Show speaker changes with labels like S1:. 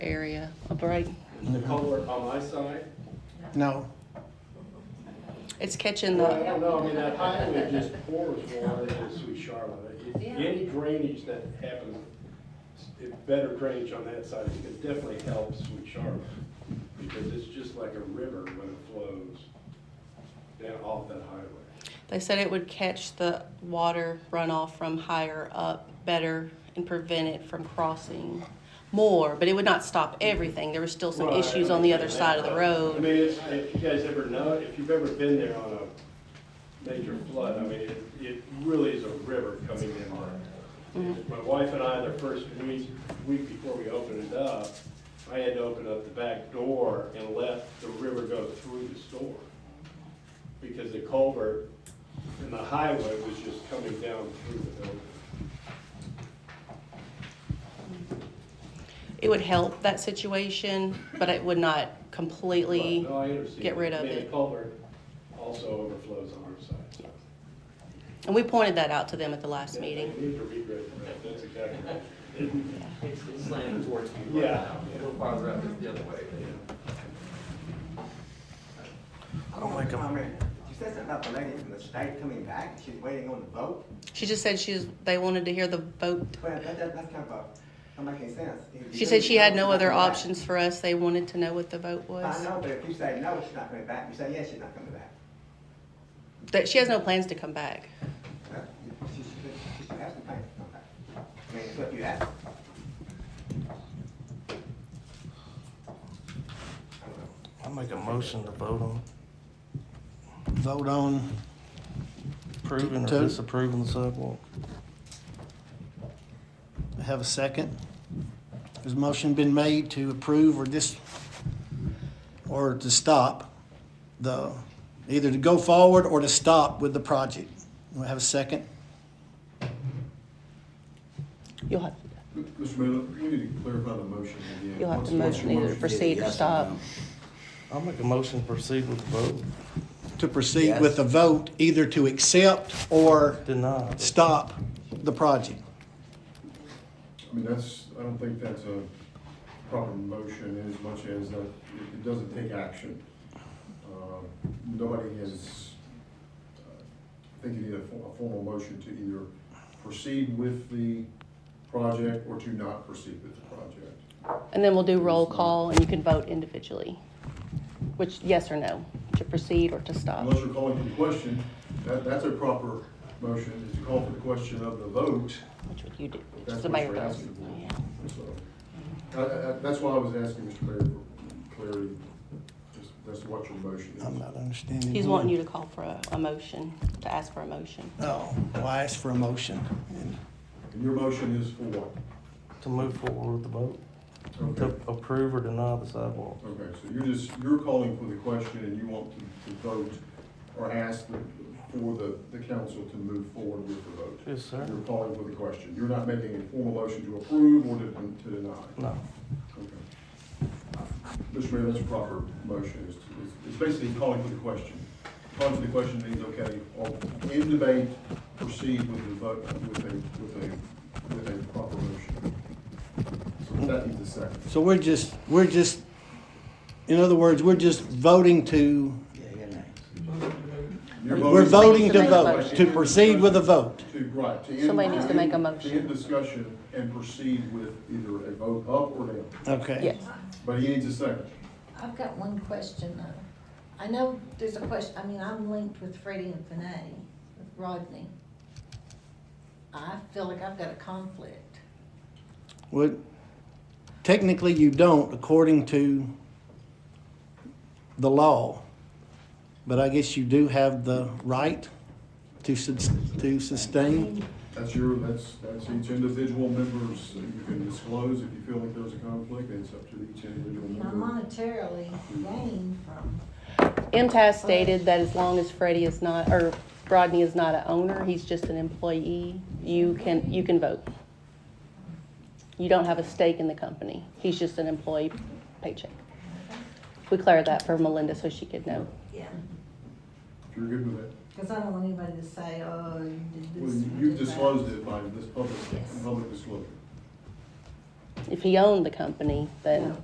S1: area, a break.
S2: The culvert on my side?
S3: No,
S1: It's catching
S2: Well, I
S1: the,
S2: don't know, I mean, that highway just pours water into Sweet Charlotte. It- Any drainage that happens, it- better drainage on that side, it definitely helps Sweet Charlotte. Because it's just like a river when it flows down off that highway.
S1: they said it would catch the water runoff from higher up better and prevent it from crossing more, but it would not stop everything. There were still some
S2: Right,
S1: issues on the other
S2: okay.
S1: side of the
S2: I
S1: road.
S2: mean, it's, if you guys ever know, if you've ever been there on a major flood, I mean, it, it really is a river coming in. there.
S1: Mm-hmm.
S2: My wife and I, the first week, week before we opened it up, I had to open up the back door and let the river go through the store. Because the culvert and the highway was just coming down through the building.
S1: It would help that situation, but it would not completely.
S2: But, no, I understand.
S1: get rid of
S2: I mean,
S1: it.
S2: the culvert also overflows on our side, so.
S1: And we pointed that out to them at the last meeting.
S2: Need to regret that, that's exactly right.
S4: It's it's slanting towards you right
S2: Yeah.
S4: now. A little farther up is the other way.
S3: I don't like them.
S5: You said something about the lady from the state coming back, she's waiting on the vote?
S1: She just said she's, they wanted to hear the vote.
S5: Well, that, that, that's kind of a, that make any sense. If you
S1: She
S5: do
S1: said she had no
S5: she's not
S1: other
S5: coming back.
S1: options for us. They wanted to know what the vote
S5: I
S1: was.
S5: know, but if you say no, she's not coming back, you say yes, she's not coming back.
S1: That she has no plans to come back.
S5: Huh? She, she, she should have some things to come back. I mean, it's what you ask. I don't know.
S3: I'll make a motion to vote on. Vote on. Approving or disapproving the sidewalk. Have a second? Has a motion been made to approve or dis, or to stop the, either to go forward or to stop with the project? We have a second?
S1: You'll have,
S6: Mr. Miller, we need to clarify the motion again.
S1: you'll have
S6: What's-
S1: to
S6: what's your
S1: motion either to proceed or
S7: yes or
S1: stop.
S7: no?
S8: I'll make a motion to proceed with the vote.
S3: To proceed with the vote, either to accept or
S8: Deny.
S3: stop the project.
S6: I mean, that's, I don't think that's a proper motion in as much as that it it doesn't take action. Um, Nobody has, uh, I think you need a for- a formal motion to either proceed with the project or to not proceed with the project.
S1: And then we'll do roll call and you can vote individually, which, yes or no, to proceed or to stop.
S6: Unless you're calling for the question, that, that's a proper motion, is to call for the question of the vote.
S1: Which would you do? Which
S6: That's
S1: the
S6: what
S1: mayor
S6: you're
S1: does.
S6: asking
S1: Yeah.
S6: for. So, I- I- I- That's why I was asking Mr. Mayor for clarity, just, that's what your motion
S3: I'm
S6: is.
S3: not understanding.
S1: He's
S3: why.
S1: wanting you to call for a, a motion, to ask for a motion.
S3: No, Oh, well, I asked for a motion.
S6: And your motion is for what?
S8: To move forward with the vote, to
S6: Okay,
S8: approve or deny the sidewalk.
S6: okay, so you're just, you're calling for the question and you want to, to vote or ask the, for the, the council to move forward with the vote.
S8: Yes, sir.
S6: You're calling for the question, you're not making a formal motion to approve or to, to deny.
S8: No.
S6: Okay. Mr. Mayor, that's a proper motion, it's, it's- it's basically calling for the question. Calling for the question means, okay, or in debate, proceed with the vote, with a, with a, with a proper motion. So that needs a second.
S3: So we're just, we're just, in other words, we're just voting to,
S7: Yeah, you're next.
S6: You're
S3: we're
S1: Somebody
S3: voting
S1: needs to
S3: to
S1: make a
S3: vote, to proceed with a vote.
S6: To, right, to end.
S1: Somebody needs to make a
S6: end-
S1: motion.
S6: To end discussion and proceed with either a vote up or down,
S3: Okay.
S1: Yes.
S6: but he needs a second.
S9: I've got one question though. I know there's a question, I mean, I'm linked with Freddie and Fanny, with Rodney. I feel like I've got a conflict.
S3: Well, technically you don't according to the law, but I guess you do have the right to sus- to sustain.
S6: That's your, that's, that's each individual member's, you can disclose if you feel like there's a conflict, and it's up to each individual
S9: You know,
S6: member.
S9: monetarily gain from,
S1: MTS stated that as long as Freddie is not, or Rodney is not an owner, he's just an employee, you can, you can vote. You don't have a stake in the company. He's just an employee paycheck. We cleared that for Melinda so she could know.
S9: yeah,
S6: If you're good with that.
S9: because I don't want anybody to say, oh, you did this.
S6: Well,
S9: you
S6: you've
S9: did that."
S6: disclosed it by this public,
S9: Yes.
S6: public disclosure.
S1: if he owned the company, then.
S9: No.